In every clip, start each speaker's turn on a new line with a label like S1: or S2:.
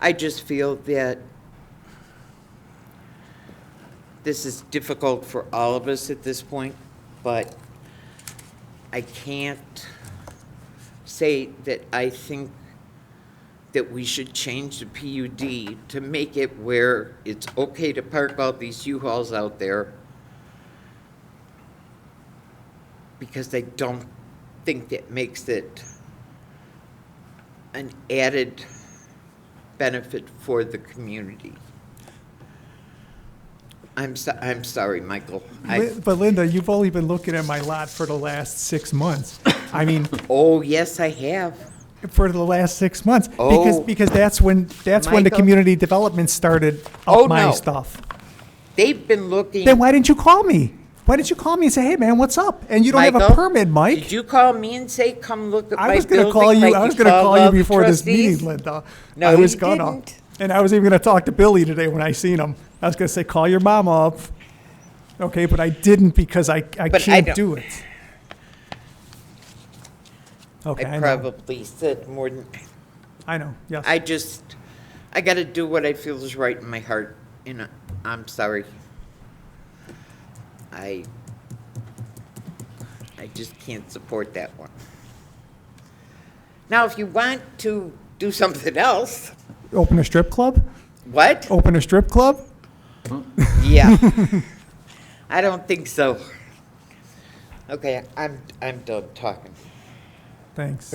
S1: I just feel that this is difficult for all of us at this point, but I can't say that I think that we should change the PUD to make it where it's okay to park all these U-Hauls out there because I don't think that makes it an added benefit for the community. I'm so, I'm sorry, Michael. I,
S2: Lin- But Linda, you've only been looking at my lot for the last six months. I mean,
S1: oh, yes, I have.
S2: for the last six months. Because,
S1: Oh.
S2: because that's when, that's when the
S1: Michael.
S2: community development started
S1: Oh,
S2: up my
S1: no.
S2: stuff.
S1: They've been looking.
S2: Then why didn't you call me? Why didn't you call me and say, hey, man, what's up? And you don't have a
S1: Michael,
S2: permit,
S1: Did
S2: Mike.
S1: you call me and say, come look at
S2: I
S1: my
S2: was gonna
S1: building
S2: call you,
S1: like
S2: I was
S1: you
S2: gonna
S1: call
S2: call you
S1: all the
S2: before this
S1: trustees?"
S2: meeting, Linda.
S1: No,
S2: I was
S1: you
S2: gonna.
S1: didn't.
S2: And I was even gonna talk to Billy today when I seen him. I was gonna say, call your mom up. Okay, but I didn't because I, I
S1: But I
S2: can't
S1: don't-
S2: do it. Okay,
S1: I
S2: I know,
S1: probably said more than,
S2: I know, yes.
S1: I just, I gotta do what I feel is right in my heart, and I- I'm sorry. I, I just can't support that one. Now, if you want to do something else,
S2: Open a strip club?
S1: what?
S2: Open a strip club?
S1: Yeah. I don't think so. Okay, I'm, I'm done talking.
S2: Thanks.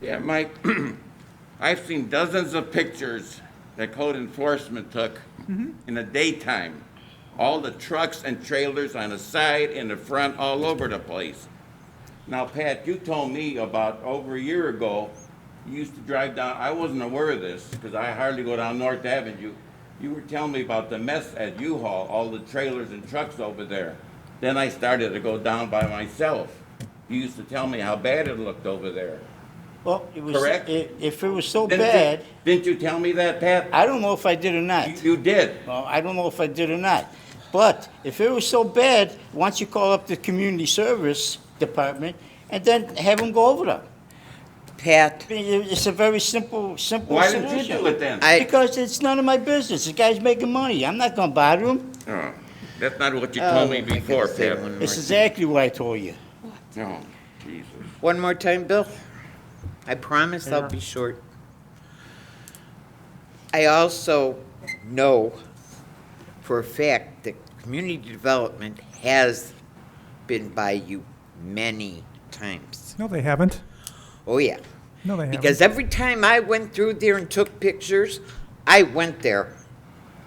S3: Yeah, Mike, I've seen dozens of pictures that code enforcement took in the daytime. All the trucks and trailers on the side and the front, all over the place. Now, Pat, you told me about over a year ago, you used to drive down, I wasn't aware of this, because I hardly go down North Avenue. You were telling me about the mess at U-Haul, all the trailers and trucks over there. Then I started to go down by myself. You used to tell me how bad it looked over there.
S4: Well, it was,
S3: Correct?
S4: i- if it was so
S3: Didn't you-
S4: bad,
S3: Didn't you tell me that, Pat?
S4: I don't know if I did or not.
S3: You, you did.
S4: Well, I don't know if I did or not. But if it was so bad, once you call up the community service department and then have them go over them.
S1: Pat?
S4: I mean, it- It's a very simple, simple
S3: Why
S4: solution.
S3: didn't you do it then?
S1: I-
S4: Because it's none of my business. The guy's making money. I'm not gonna bother him.
S3: Oh, that's not what you told me
S1: Oh, I gotta
S3: before,
S1: say
S3: Pat.
S1: one more
S4: It's
S1: thing.
S4: exactly what I told you.
S3: No, Jesus.
S1: One more time, Bill? I promise I'll be short. I also know for a fact that community development has been by you many times.
S2: No, they haven't.
S1: Oh, yeah.
S2: No, they haven't.
S1: Because every time I went through there and took pictures, I went there.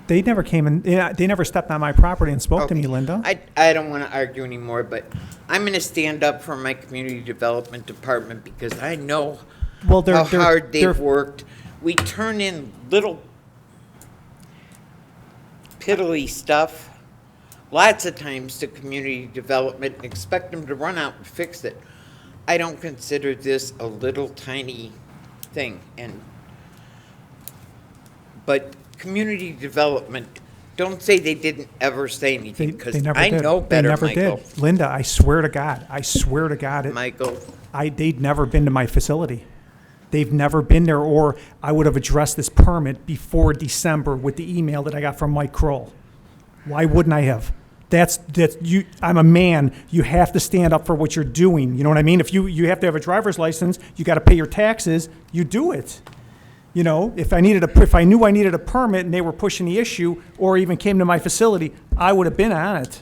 S2: They never came and, they never stepped on my property and spoke to
S1: Okay.
S2: me, Linda.
S1: I, I don't want to argue anymore, but I'm going to stand up for my community development department because I know
S2: Well, they're-
S1: how
S2: they're-
S1: hard they've
S2: they're-
S1: worked. We turn in little piddly stuff lots of times to community development and expect them to run out and fix it. I don't consider this a little tiny thing, and but community development, don't say they didn't ever say
S2: They,
S1: anything, because
S2: they never
S1: I
S2: did.
S1: know
S2: They
S1: better,
S2: never
S1: Michael.
S2: did. Linda, I swear to God, I swear to God, it-
S1: Michael,
S2: I, they'd never been to my facility. They've never been there, or I would have addressed this permit before December with the email that I got from Mike Kroll. Why wouldn't I have? That's, that's, you, I'm a man, you have to stand up for what you're doing, you know what I mean? If you, you have to have a driver's license, you gotta pay your taxes, you do it. You know, if I needed a, if I knew I needed a permit and they were pushing the issue, or even came to my facility, I would have been on it.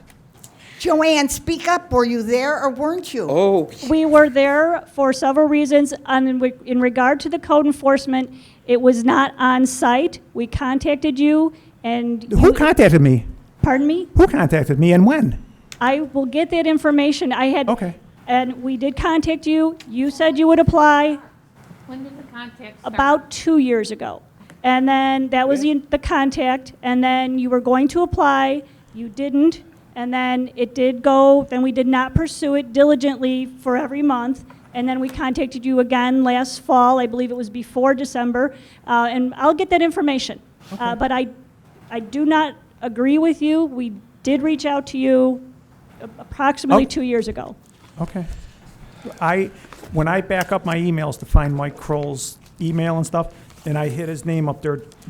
S5: Joanne, speak up. Were you there or weren't you?
S1: oh,
S6: We were there for several reasons, and in re- in regard to the code enforcement, it was not on-site. We contacted you, and
S2: Who
S6: you-
S2: contacted me?
S6: Pardon me?
S2: Who contacted me and when?
S6: I will get that information. I had.
S2: Okay.
S6: And we did contact you. You said you would apply
S7: When did the contact start?
S6: about two years ago. And then that was the the contact, and then you were going to apply, you didn't, and then it did go, then we did not pursue it diligently for every month. And then we contacted you again last fall, I believe it was before December, uh, and I'll get that information. Uh, But I, I do not agree with you. We did reach out to you approximately
S2: Oh.
S6: two years ago.
S2: Okay. I, when I back up my emails to find Mike Kroll's email and stuff, and I hit his name up there,